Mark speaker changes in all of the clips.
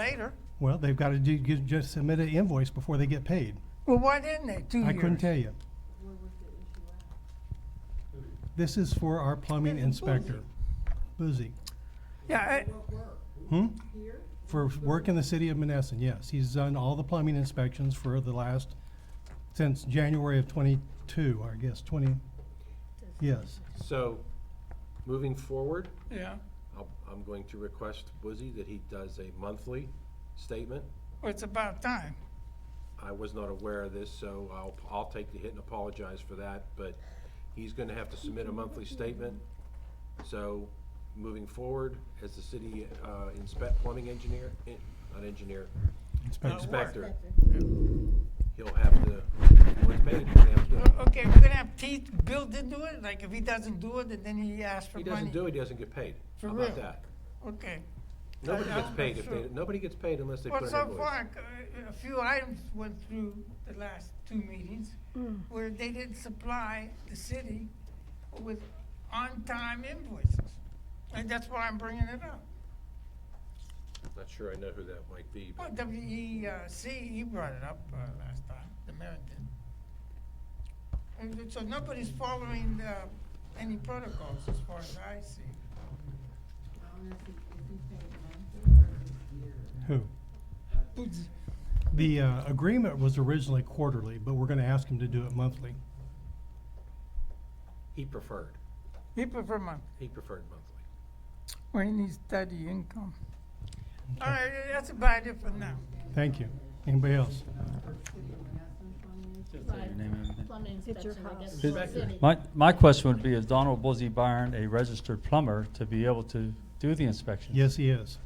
Speaker 1: later.
Speaker 2: Well, they've got to do, get- just submit an invoice before they get paid.
Speaker 1: Well, why didn't they? Two years.
Speaker 2: I couldn't tell you. This is for our plumbing inspector, Boozy.
Speaker 1: Yeah, I-
Speaker 2: Hmm? For work in the city of Menneson, yes. He's done all the plumbing inspections for the last, since January of twenty-two, I guess, twenty, yes.
Speaker 3: So, moving forward,
Speaker 1: yeah.
Speaker 3: I'll- I'm going to request Boozy that he does a monthly statement.
Speaker 1: Well, it's about time.
Speaker 3: I was not aware of this, so I'll, I'll take the hit and apologize for that, but he's gonna have to submit a monthly statement. So, moving forward, as the city uh, inspect, plumbing engineer, eh, not engineer,
Speaker 2: Inspector.
Speaker 3: inspector, he'll have to, once paid, he'll have to do it.
Speaker 1: O- Okay, we're gonna have Pete build into it, like if he doesn't do it, and then he asks for
Speaker 3: He
Speaker 1: money.
Speaker 3: doesn't do it, he doesn't get paid.
Speaker 1: For
Speaker 3: How
Speaker 1: real?
Speaker 3: about that?
Speaker 1: Okay.
Speaker 3: Nobody
Speaker 1: I'm
Speaker 3: gets
Speaker 1: not
Speaker 3: paid if
Speaker 1: sure.
Speaker 3: they, nobody gets paid unless they put
Speaker 1: Well,
Speaker 3: in an
Speaker 1: so
Speaker 3: invoice.
Speaker 1: far, c- a few items went through the last two meetings where they didn't supply the city with on-time invoices. And that's why I'm bringing it up.
Speaker 3: Not sure I know who that might be,
Speaker 1: Well, E
Speaker 3: but
Speaker 1: WEC, he brought it up uh, last time, the mayor did. And th- so nobody's following the, any protocols as far as I see. Oh.
Speaker 2: Who?
Speaker 1: Boots.
Speaker 2: The uh, agreement was originally quarterly, but we're going to ask him to do it monthly.
Speaker 3: he preferred,
Speaker 1: He prefer month,
Speaker 3: he preferred monthly.
Speaker 1: when he needs steady income. All right, that's about it for now.
Speaker 2: Thank you. Anybody else?
Speaker 4: Plumbing inspection, I guess.
Speaker 5: My, my question would be, is Donald Buzzy Byron a registered plumber to be able to do the inspections?
Speaker 2: Yes, he is.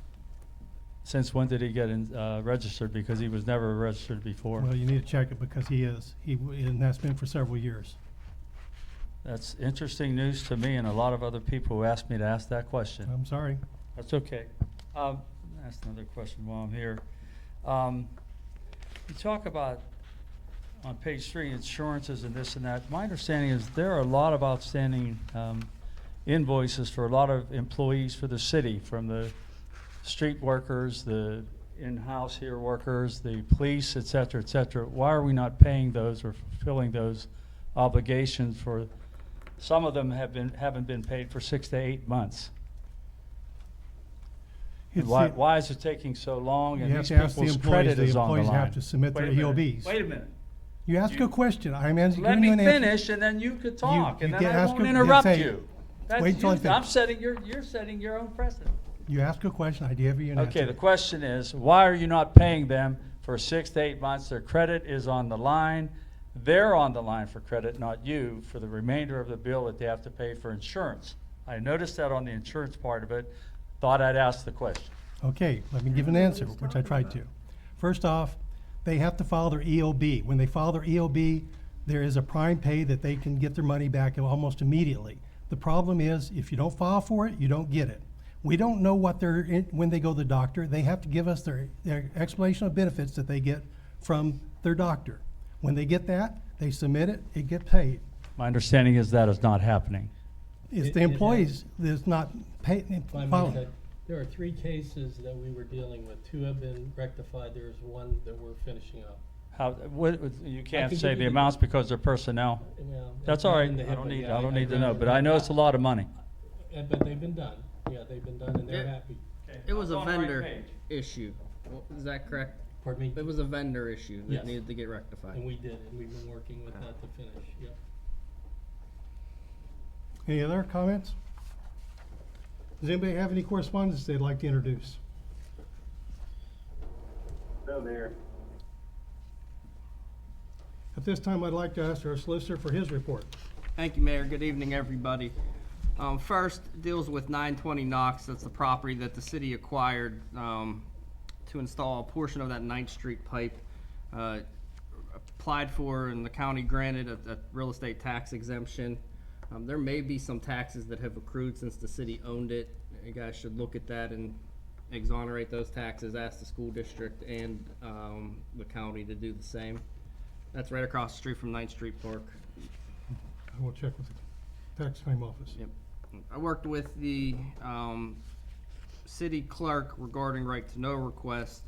Speaker 5: Since when did he get in, uh, registered? Because he was never registered before.
Speaker 2: Well, you need to check it because he is. He, w- and that's been for several years.
Speaker 5: That's interesting news to me and a lot of other people who asked me to ask that question.
Speaker 2: I'm sorry.
Speaker 5: That's okay. Um, ask another question while I'm here. Um, you talk about on page three insurances and this and that. My understanding is there are a lot of outstanding um, invoices for a lot of employees for the city, from the street workers, the in-house here workers, the police, et cetera, et cetera. Why are we not paying those or fulfilling those obligations for? Some of them have been haven't been paid for six to eight months.
Speaker 2: It's
Speaker 5: Why,
Speaker 2: the-
Speaker 5: why is it taking so long?
Speaker 2: You
Speaker 5: And
Speaker 2: have
Speaker 5: these
Speaker 2: to ask the
Speaker 5: people's
Speaker 2: employees.
Speaker 5: credit
Speaker 2: The
Speaker 5: is on the
Speaker 2: employees have
Speaker 5: line.
Speaker 2: to submit
Speaker 5: Wait
Speaker 2: their E
Speaker 5: a minute.
Speaker 2: EOBs.
Speaker 5: Wait a minute.
Speaker 2: You ask a question. I'm answering.
Speaker 5: Let
Speaker 2: giving you
Speaker 5: me
Speaker 2: an answer.
Speaker 5: finish and then you could talk and
Speaker 2: you
Speaker 5: then
Speaker 2: get-
Speaker 5: I
Speaker 2: ask
Speaker 5: won't
Speaker 2: a-
Speaker 5: interrupt
Speaker 2: say-
Speaker 5: you. That's,
Speaker 2: wait till I
Speaker 5: you- I'm
Speaker 2: finish.
Speaker 5: setting your, you're setting your own precedent.
Speaker 2: You ask a question. I give you an answer.
Speaker 5: Okay, the question is, why are you not paying them for six to eight months? Their credit is on the line. They're on the line for credit, not you, for the remainder of the bill that they have to pay for insurance. I noticed that on the insurance part of it. Thought I'd ask the question.
Speaker 2: Okay, let me give an answer, which I tried to. First off, they have to file their EOB. When they file their EOB, there is a prime pay that they can get their money back almost immediately. The problem is, if you don't file for it, you don't get it. We don't know what they're, in- when they go to the doctor, they have to give us their, their explanation of benefits that they get from their doctor. When they get that, they submit it, it get paid.
Speaker 5: My understanding is that is not happening.
Speaker 2: It's
Speaker 6: It-
Speaker 2: the
Speaker 6: it has-
Speaker 2: employees that's not pay,
Speaker 6: If I may
Speaker 2: filing.
Speaker 6: say, There are three cases that we were dealing with. Two have been rectified. There's one that we're finishing up.
Speaker 5: How, what, you can't say
Speaker 6: can give
Speaker 5: the
Speaker 6: you the-
Speaker 5: amounts because they're personnel.
Speaker 6: Well,
Speaker 5: That's
Speaker 6: not
Speaker 5: all right.
Speaker 6: in the
Speaker 5: I don't
Speaker 6: HIPAA,
Speaker 5: need,
Speaker 6: yeah,
Speaker 5: I don't need to
Speaker 6: I'd
Speaker 5: know,
Speaker 6: rather
Speaker 5: but I
Speaker 6: not.
Speaker 5: know it's a lot of money.
Speaker 6: Uh, But they've been done. Yeah, they've been done and they're
Speaker 7: Yeah.
Speaker 6: happy.
Speaker 7: It was a
Speaker 5: On the right
Speaker 7: vendor
Speaker 5: page.
Speaker 7: issue. Wa- Is that correct?
Speaker 6: Pardon me?
Speaker 7: It was a vendor issue
Speaker 6: Yes.
Speaker 7: that needed to get
Speaker 6: And
Speaker 7: rectified.
Speaker 6: we did, and we've been working with that to finish. Yep.
Speaker 2: Any other comments? Does anybody have any correspondence they'd like to introduce?
Speaker 8: No, Mayor.
Speaker 2: At this time, I'd like to ask our solicitor for his report.
Speaker 7: Thank you, Mayor. Good evening, everybody. Um, first deals with nine twenty Knox. That's the property that the city acquired, um, to install a portion of that Ninth Street pipe. Uh, applied for and the county granted a, a real estate tax exemption. Um, there may be some taxes that have accrued since the city owned it. You guys should look at that and exonerate those taxes, ask the school district and, um, the county to do the same. That's right across the street from Ninth Street Park.
Speaker 2: I will check with the tax claim office.
Speaker 7: Yep. I worked with the um, city clerk regarding right to know request.